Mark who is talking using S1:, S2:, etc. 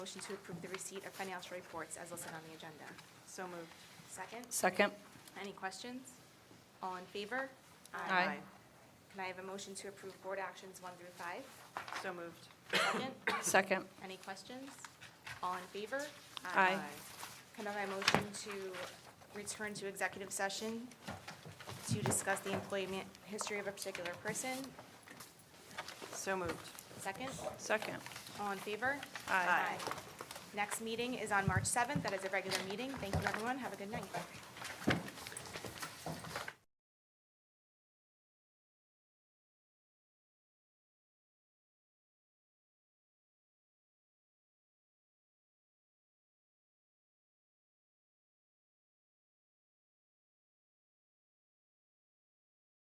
S1: Motion to approve the receipt of financial reports as listed on the agenda. So moved. Second?
S2: Second.
S1: Any questions? All in favor?
S2: Aye. Aye.
S1: Can I have a motion to approve board actions one through five? So moved. Second?
S2: Second.
S1: Any questions? All in favor?
S2: Aye. Aye.
S1: Can I have a motion to return to executive session to discuss the employment history of a particular person?
S2: So moved.
S1: Second?
S2: Second.
S1: All in favor?
S2: Aye.
S1: Next meeting is on March 7th. That is a regular meeting. Thank you, everyone. Have a good night.